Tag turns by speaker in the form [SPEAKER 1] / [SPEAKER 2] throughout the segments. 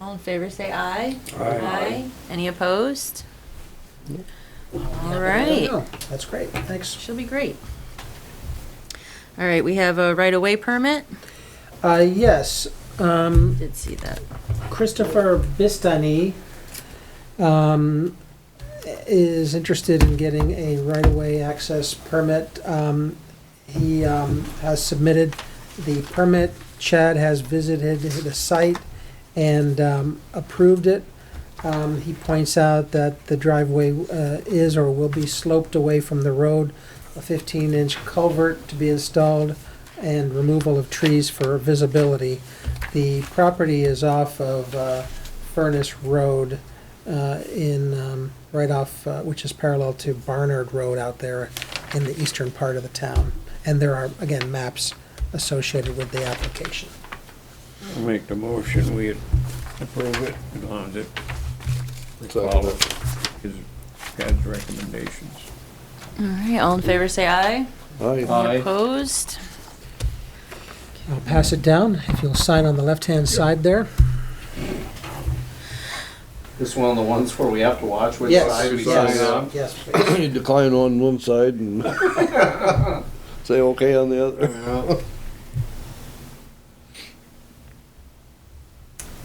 [SPEAKER 1] All in favor, say aye.
[SPEAKER 2] Aye.
[SPEAKER 1] Any opposed? All right.
[SPEAKER 2] Yeah, That's great, thanks.
[SPEAKER 1] She'll be great. All right, we have a right-of-way permit.
[SPEAKER 2] Uh, yes, um,
[SPEAKER 1] Did see that.
[SPEAKER 2] Christopher Bistani, um, is interested in getting a right-of-way access permit. Um, he, um, has submitted the permit. Chad has visited the site and, um, approved it. Um, he points out that the driveway, uh, is or will be sloped away from the road, a fifteen-inch culvert to be installed, and removal of trees for visibility. The property is off of, uh, Furnace Road, uh, in, um, right off, uh, which is parallel to Barnard Road out there in the eastern part of the town. And there are, again, maps associated with the application.
[SPEAKER 3] I'll Make the motion, we approve it, as long as it follows his, Chad's recommendations.
[SPEAKER 1] All right, all in favor, say aye.
[SPEAKER 4] Aye.
[SPEAKER 1] Any opposed?
[SPEAKER 2] I'll pass it down, if you'll sign on the left-hand side there.
[SPEAKER 4] This one of the ones where we have to watch which
[SPEAKER 2] Yes.
[SPEAKER 4] side we
[SPEAKER 2] Yes.
[SPEAKER 4] sign on.
[SPEAKER 2] Yes, please.
[SPEAKER 5] You decline on one side and say okay on the other.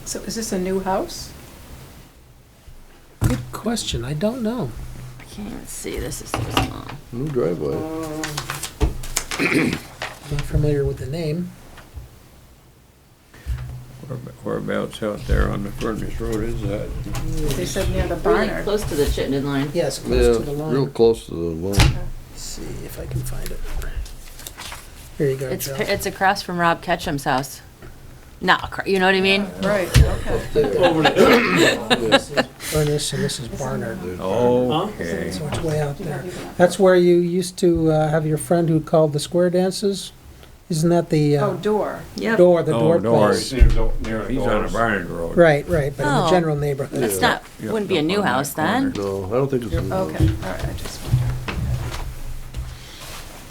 [SPEAKER 6] So is this a new house?
[SPEAKER 2] Good question, I don't know.
[SPEAKER 1] I can't even see, this is so small.
[SPEAKER 5] New Mm, driveway.
[SPEAKER 2] Not familiar with the name.
[SPEAKER 3] Where- Whereabouts out there on the Furnace Road is that?
[SPEAKER 6] They said near the
[SPEAKER 1] Really
[SPEAKER 6] barn.
[SPEAKER 1] close to the Chittenden line.
[SPEAKER 2] Yes, close
[SPEAKER 5] Yeah,
[SPEAKER 2] to the line.
[SPEAKER 5] real close to the line.
[SPEAKER 2] Let's See if I can find it. Here you go,
[SPEAKER 1] It's,
[SPEAKER 2] Joe.
[SPEAKER 1] pa- it's across from Rob Ketchum's house. Not, acro- you know what I mean?
[SPEAKER 6] Right, okay.
[SPEAKER 2] Furnace, and this is Barnard.
[SPEAKER 3] Oh. Okay.
[SPEAKER 2] So it's way out there. That's where you used to uh, have your friend who called the square dances? Isn't that the
[SPEAKER 6] Oh,
[SPEAKER 2] uh,
[SPEAKER 6] door.
[SPEAKER 1] Yep.
[SPEAKER 2] door, the
[SPEAKER 3] Oh,
[SPEAKER 2] door
[SPEAKER 3] doors.
[SPEAKER 2] place?
[SPEAKER 3] He's on a Barnard Road.
[SPEAKER 2] Right, right, but in the
[SPEAKER 1] Oh.
[SPEAKER 2] general neighborhood.
[SPEAKER 1] It's not,
[SPEAKER 3] Yeah,
[SPEAKER 1] wouldn't be a
[SPEAKER 3] up
[SPEAKER 1] new
[SPEAKER 3] on that
[SPEAKER 1] house then.
[SPEAKER 5] No, I don't think it's. in the
[SPEAKER 6] Okay, all
[SPEAKER 5] house.
[SPEAKER 6] right, I just wondered.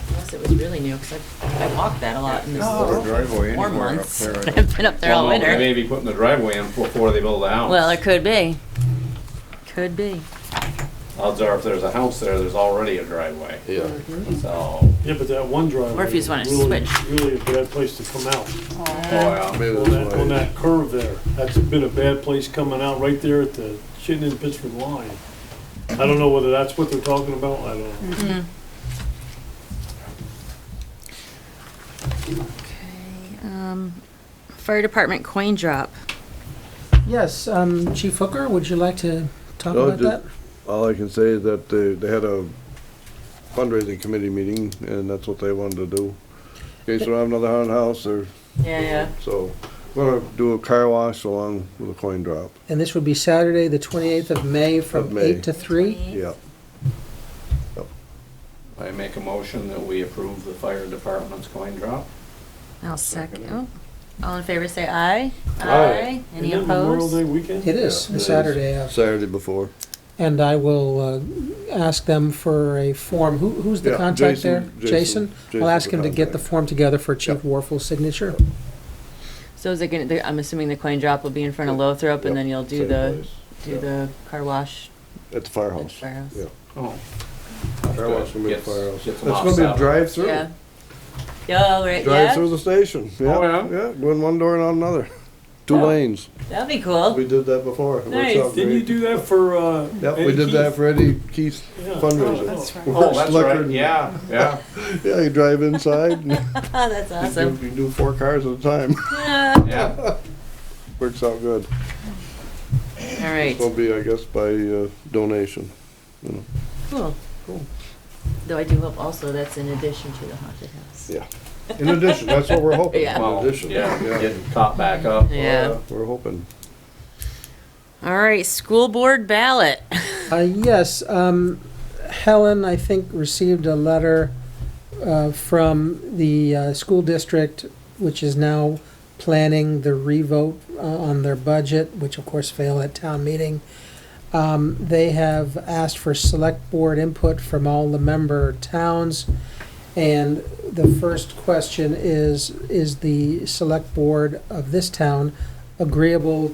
[SPEAKER 1] Unless it was really new, because I, I walked that a lot in the
[SPEAKER 6] Oh.
[SPEAKER 3] Or driveway
[SPEAKER 1] warm
[SPEAKER 3] anywhere up
[SPEAKER 1] months.
[SPEAKER 2] Oh.
[SPEAKER 3] there. I
[SPEAKER 1] I've been up there all
[SPEAKER 4] Well, no, They
[SPEAKER 1] winter.
[SPEAKER 4] may be putting the driveway in before they build the house.
[SPEAKER 1] Well, it could be. Could be.
[SPEAKER 4] Odds are if there's a house there, there's already a driveway,
[SPEAKER 5] Yeah.
[SPEAKER 4] so.
[SPEAKER 7] Yeah, but that one driveway.
[SPEAKER 1] Or if you just wanna
[SPEAKER 7] is really-
[SPEAKER 1] switch.
[SPEAKER 7] Really a bad place to come out.
[SPEAKER 1] Uh-huh.
[SPEAKER 4] Oh,
[SPEAKER 5] Maybe
[SPEAKER 7] On that, on
[SPEAKER 5] that's why.
[SPEAKER 7] that curve there, that's been a bad place coming out right there at the Chittenden Pittsford line. I don't know whether that's what they're talking about, I don't know.
[SPEAKER 1] Okay, um, Fire Department coin drop.
[SPEAKER 2] Yes, um, Chief Hooker, would you like to talk
[SPEAKER 5] No,
[SPEAKER 2] about
[SPEAKER 5] just-
[SPEAKER 2] that?
[SPEAKER 5] All I can say is that they, they had a fundraising committee meeting and that's what they wanted to do. In case we have another haunted house or,
[SPEAKER 1] Yeah, yeah.
[SPEAKER 5] so, we're gonna do a car wash along with a coin drop.
[SPEAKER 2] And this would be Saturday, the 28th of May, from
[SPEAKER 5] May.
[SPEAKER 2] 8 to 3?
[SPEAKER 5] Yeah.
[SPEAKER 4] yeah. I make a motion that we approve the fire department's coin drop.
[SPEAKER 1] I'll second. oh. All in favor, say aye.
[SPEAKER 5] Aye.
[SPEAKER 1] Any
[SPEAKER 7] Isn't that Memorial Day
[SPEAKER 1] opposed?
[SPEAKER 7] weekend?
[SPEAKER 2] It is,
[SPEAKER 5] Yeah, it
[SPEAKER 2] the
[SPEAKER 5] is.
[SPEAKER 2] Saturday of.
[SPEAKER 5] Saturday before.
[SPEAKER 2] And I will uh, ask them for a form. Who, who's the
[SPEAKER 5] Yeah,
[SPEAKER 2] contact
[SPEAKER 5] Jason-
[SPEAKER 2] there?
[SPEAKER 5] Jason-
[SPEAKER 2] Jason? I'll
[SPEAKER 5] Jason's
[SPEAKER 2] ask
[SPEAKER 5] the
[SPEAKER 2] him to get the
[SPEAKER 5] contact.
[SPEAKER 2] form together for Chief
[SPEAKER 5] Yep.
[SPEAKER 2] Warfel's signature.
[SPEAKER 1] So is it gonna, the- I'm assuming the coin drop will be in front of Lothrop and then you'll do
[SPEAKER 5] Same
[SPEAKER 1] the,
[SPEAKER 5] place.
[SPEAKER 1] do
[SPEAKER 5] Yeah.
[SPEAKER 1] the car wash
[SPEAKER 5] At the
[SPEAKER 1] at the
[SPEAKER 5] firehouse.
[SPEAKER 1] firehouse?
[SPEAKER 5] Yeah.
[SPEAKER 4] Oh.
[SPEAKER 5] Car wash will be at
[SPEAKER 4] Gets-
[SPEAKER 5] the firehouse.
[SPEAKER 4] gets
[SPEAKER 5] It's
[SPEAKER 4] them off
[SPEAKER 5] gonna be a
[SPEAKER 4] Saturday.
[SPEAKER 5] drive-through.
[SPEAKER 1] Yeah. Yeah, all right,
[SPEAKER 5] Drive through
[SPEAKER 1] yeah,
[SPEAKER 5] the station. Yeah,
[SPEAKER 4] Oh, yeah?
[SPEAKER 5] yeah. Go in one door and out another. Two
[SPEAKER 1] Oh.
[SPEAKER 5] lanes.
[SPEAKER 1] that'd be cool.
[SPEAKER 5] We did that before. It works
[SPEAKER 1] Nice.
[SPEAKER 5] out
[SPEAKER 7] Didn't you
[SPEAKER 5] great.
[SPEAKER 7] do that for, uh?
[SPEAKER 5] Yep, we
[SPEAKER 7] Eddie
[SPEAKER 5] did that
[SPEAKER 7] Keith?
[SPEAKER 5] for Eddie Keith's
[SPEAKER 7] Yeah.
[SPEAKER 6] Oh,
[SPEAKER 5] fundraiser.
[SPEAKER 6] that's right.
[SPEAKER 4] Oh, that's
[SPEAKER 5] Slicker
[SPEAKER 4] right,
[SPEAKER 5] and-
[SPEAKER 4] yeah, yeah.
[SPEAKER 5] Yeah, you drive inside. and you
[SPEAKER 1] Ah, that's
[SPEAKER 5] do-
[SPEAKER 1] awesome. Ah.
[SPEAKER 5] You do four cars at a time.
[SPEAKER 1] Yeah.
[SPEAKER 4] Yeah,
[SPEAKER 5] Works out good.
[SPEAKER 1] All right,
[SPEAKER 5] Will be, I guess, by uh, donation.
[SPEAKER 1] cool. Cool. Though I do hope also that's in addition to the haunted house.
[SPEAKER 5] Yeah. In addition, that's what we're hoping.
[SPEAKER 1] Yeah.
[SPEAKER 5] In
[SPEAKER 4] well,
[SPEAKER 5] addition.
[SPEAKER 4] yeah, getting caught back up.
[SPEAKER 1] Yeah.
[SPEAKER 5] Uh, We're hoping.
[SPEAKER 1] All right, school board ballot.
[SPEAKER 2] Uh, yes, um, Helen, I think, received a letter, uh, from the, uh, school district, which is now planning the revote, uh, on their budget, which of course failed at town meeting. Um, they have asked for select board input from all the member towns. And the first question is, is the select board of this town agreeable